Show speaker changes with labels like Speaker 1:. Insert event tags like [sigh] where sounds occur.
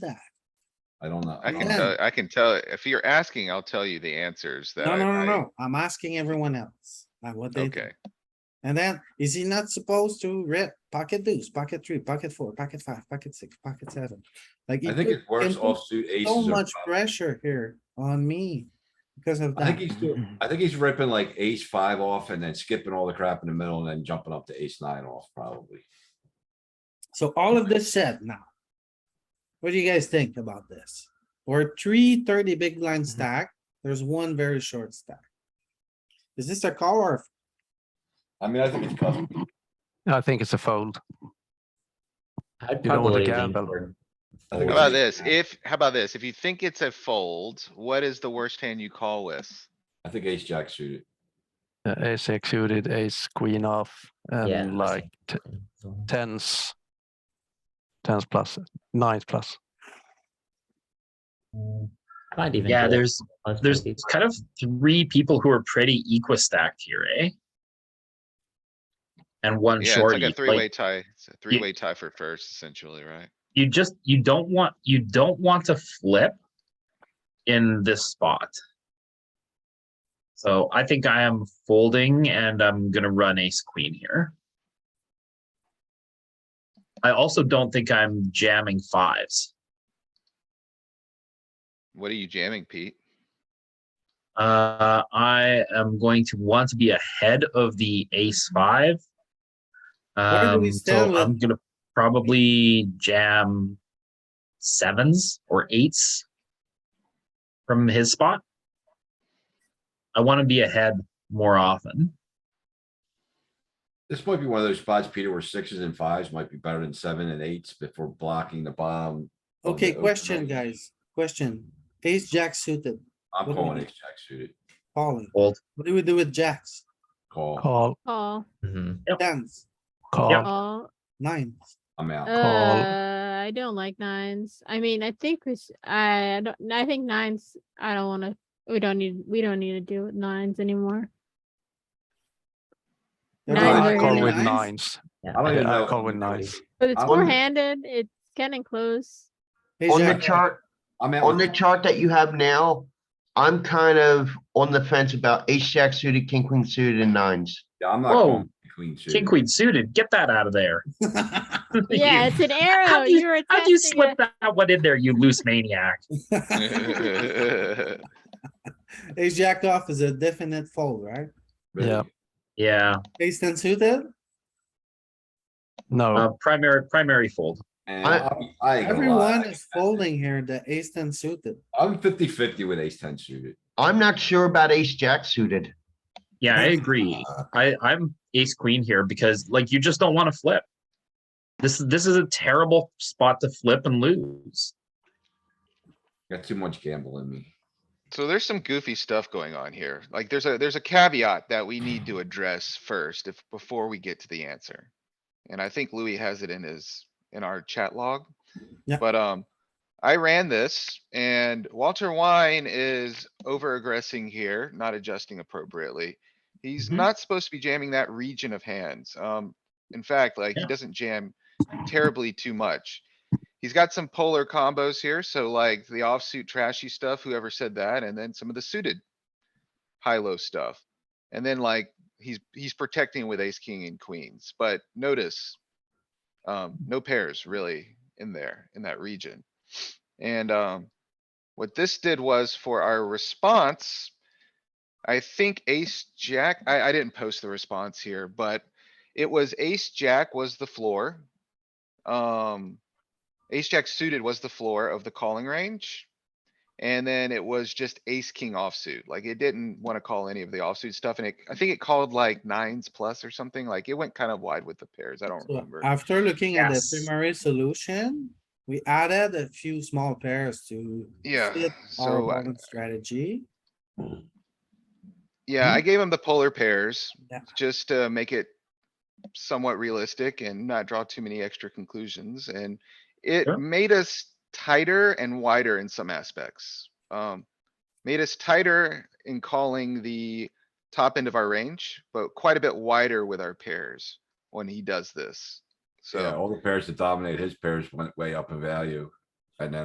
Speaker 1: that?
Speaker 2: I don't know.
Speaker 3: I can
Speaker 1: Yeah.
Speaker 3: tell, I can tell, if you're asking, I'll tell you the answers that.
Speaker 1: No,
Speaker 3: I-
Speaker 1: no, no,
Speaker 3: I-
Speaker 1: no. I'm asking everyone else. uh, what they, think.
Speaker 3: Okay,
Speaker 1: and then is he not supposed to rip pocket deuce, pocket three, pocket four, pocket five, pocket six, pocket seven? Like.
Speaker 2: I
Speaker 1: he
Speaker 2: think
Speaker 1: could-
Speaker 2: it works
Speaker 1: can put
Speaker 2: offsuit aces.
Speaker 1: So
Speaker 2: are
Speaker 1: much
Speaker 2: prob-
Speaker 1: pressure here on me because of
Speaker 2: I think
Speaker 1: that.
Speaker 2: he's doing, I think he's ripping like ace five off and then skipping all the crap in the middle and then jumping up to ace nine off probably.
Speaker 1: [clears throat] So all of this said now. What do you guys think about this? We're three thirty big blind stack. There's one very short stack. Is this a call or
Speaker 2: I mean, I think it's custom.
Speaker 4: I think it's a fold.
Speaker 5: I'd
Speaker 4: You don't want to
Speaker 5: probably lean
Speaker 4: gamble.
Speaker 5: toward-
Speaker 2: I think
Speaker 3: how
Speaker 2: it's
Speaker 3: about
Speaker 2: ace
Speaker 3: this?
Speaker 2: nine.
Speaker 3: If, how about this? If you think it's a fold, what is the worst hand you call with?
Speaker 2: I think ace jack suited.
Speaker 4: Uh, ace X suited, ace queen off,
Speaker 5: Yeah,
Speaker 4: and like t- tens, tens plus, nines plus.
Speaker 5: Might even.
Speaker 6: Yeah,
Speaker 5: do it.
Speaker 6: there's
Speaker 5: Let's
Speaker 6: there's
Speaker 5: just-
Speaker 6: kind of three people who are pretty equistacked here, eh? And one
Speaker 3: Yeah, it's
Speaker 6: shorty.
Speaker 3: like a
Speaker 6: like,
Speaker 3: three-way tie. It's a three-way tie for first essentially, right?
Speaker 6: you just you don't want you don't want to flip in this spot. So I think I am folding and I'm gonna run ace queen here. I also don't think I'm jamming fives.
Speaker 3: What are you jamming,
Speaker 1: [laughs]
Speaker 3: Pete? [laughs]
Speaker 6: Uh, I am going to want to be ahead of the ace five.
Speaker 1: Where do we
Speaker 6: Um,
Speaker 1: stand
Speaker 6: so
Speaker 1: with-
Speaker 6: I'm gonna probably jam sevens or eights from his spot. I want to be ahead more often.
Speaker 2: This might be one of those spots, Peter, where sixes and fives might be better than seven and eights before blocking the bomb. on
Speaker 1: Okay,
Speaker 2: the
Speaker 1: question,
Speaker 2: overnight.
Speaker 1: guys. Question. Ace jack suited, What
Speaker 2: I'm
Speaker 1: do we
Speaker 2: calling
Speaker 1: do?
Speaker 2: ace jack suited.
Speaker 1: calling.
Speaker 6: Fold.
Speaker 1: What do we do with jacks?
Speaker 2: Call.
Speaker 4: Call,
Speaker 7: Call,
Speaker 5: Mhm.
Speaker 1: Tens,
Speaker 4: call.
Speaker 7: call.
Speaker 1: nines.
Speaker 2: I'm out.
Speaker 4: Call.
Speaker 7: Uh, I don't like nines. I mean, I think we, sh- I don't, I think nines, I don't wanna, we don't need, we don't need to deal with nines anymore.
Speaker 1: You're
Speaker 7: Nines
Speaker 1: not
Speaker 4: I
Speaker 7: are Nine.
Speaker 4: call
Speaker 1: calling
Speaker 4: with
Speaker 7: Nines?
Speaker 4: nines.
Speaker 5: Yeah,
Speaker 2: I don't even
Speaker 4: I
Speaker 2: know.
Speaker 4: call with nines.
Speaker 7: But it's
Speaker 2: I wouldn't-
Speaker 7: four-handed, it's getting close.
Speaker 1: Ace
Speaker 8: On the
Speaker 1: jack.
Speaker 8: chart,
Speaker 2: I'm out.
Speaker 8: on the chart that you have now, I'm kind of on the fence about ace jack suited, king queen suited and nines.
Speaker 2: Yeah, I'm not
Speaker 6: Whoa.
Speaker 2: calling queen suited.
Speaker 6: King queen suited, get that out of there.
Speaker 7: [laughs] Yeah,
Speaker 6: [laughs] You-
Speaker 7: it's an arrow.
Speaker 6: how'd you-
Speaker 7: You were
Speaker 6: How'd you
Speaker 7: testing
Speaker 6: slip
Speaker 7: it.
Speaker 6: that one in there, you loose maniac?
Speaker 1: [laughs] Ace jack off is a definite fold, right?
Speaker 2: Really.
Speaker 4: Yeah.
Speaker 6: Yeah,
Speaker 1: Ace ten suited?
Speaker 4: No, Oh.
Speaker 6: uh, primary, primary fold.
Speaker 2: And
Speaker 8: I-
Speaker 2: I'm- I ain't gonna lie.
Speaker 1: Everyone is folding here, the ace ten suited.
Speaker 2: I'm 50 50 with ace 10 suited.
Speaker 8: I'm not sure about ace jack suited.
Speaker 6: Yeah, I agree. I, I'm ace queen here because like you just don't want to flip. This is this is a terrible spot to flip and lose.
Speaker 2: Got too much gamble in me.
Speaker 3: So there's some goofy stuff going on here. Like there's a, there's a caveat that we need to address first if, before we get to the answer. And I think Louis has it in his, in our chat log.
Speaker 1: Yeah.
Speaker 3: But, um, I ran this and Walter Wine is over aggressing here, not adjusting appropriately. He's
Speaker 6: Mhm.
Speaker 3: not supposed to be jamming that region of hands. Um, in fact, like he
Speaker 6: Yeah.
Speaker 3: doesn't jam terribly too much. He's got some polar combos here, so like the offsuit trashy stuff, whoever said that, and then some of the suited. High-low stuff. And then like, he's, he's protecting with ace, king and queens, but notice. Um, no pairs really in there, in that region. And, um. What this did was for our response. I think ace, jack, I, I didn't post the response here, but it was ace, jack was the floor. Um. Ace jack suited was the floor of the calling range. And then it was just ace king offsuit. Like it didn't wanna call any of the offsuit stuff and it, I think it called like nines plus or something. Like it went kind of wide with the pairs. I don't
Speaker 1: So
Speaker 3: remember.
Speaker 1: After looking at the
Speaker 6: Yes.
Speaker 1: primary solution, we added a few small pairs to.
Speaker 3: Yeah,
Speaker 1: fit our
Speaker 3: so I-
Speaker 1: opponent's Strategy.
Speaker 3: Yeah, I gave him the polar pairs,
Speaker 1: Yeah.
Speaker 3: just to make it somewhat realistic and not draw too many extra conclusions, and it
Speaker 6: Sure.
Speaker 3: made us tighter and wider in some aspects. Um, made us tighter in calling the top end of our range, but quite a bit wider with our pairs when he does this.
Speaker 2: So
Speaker 3: So.
Speaker 2: all the pairs that dominate his pairs went way up in value. And uh, then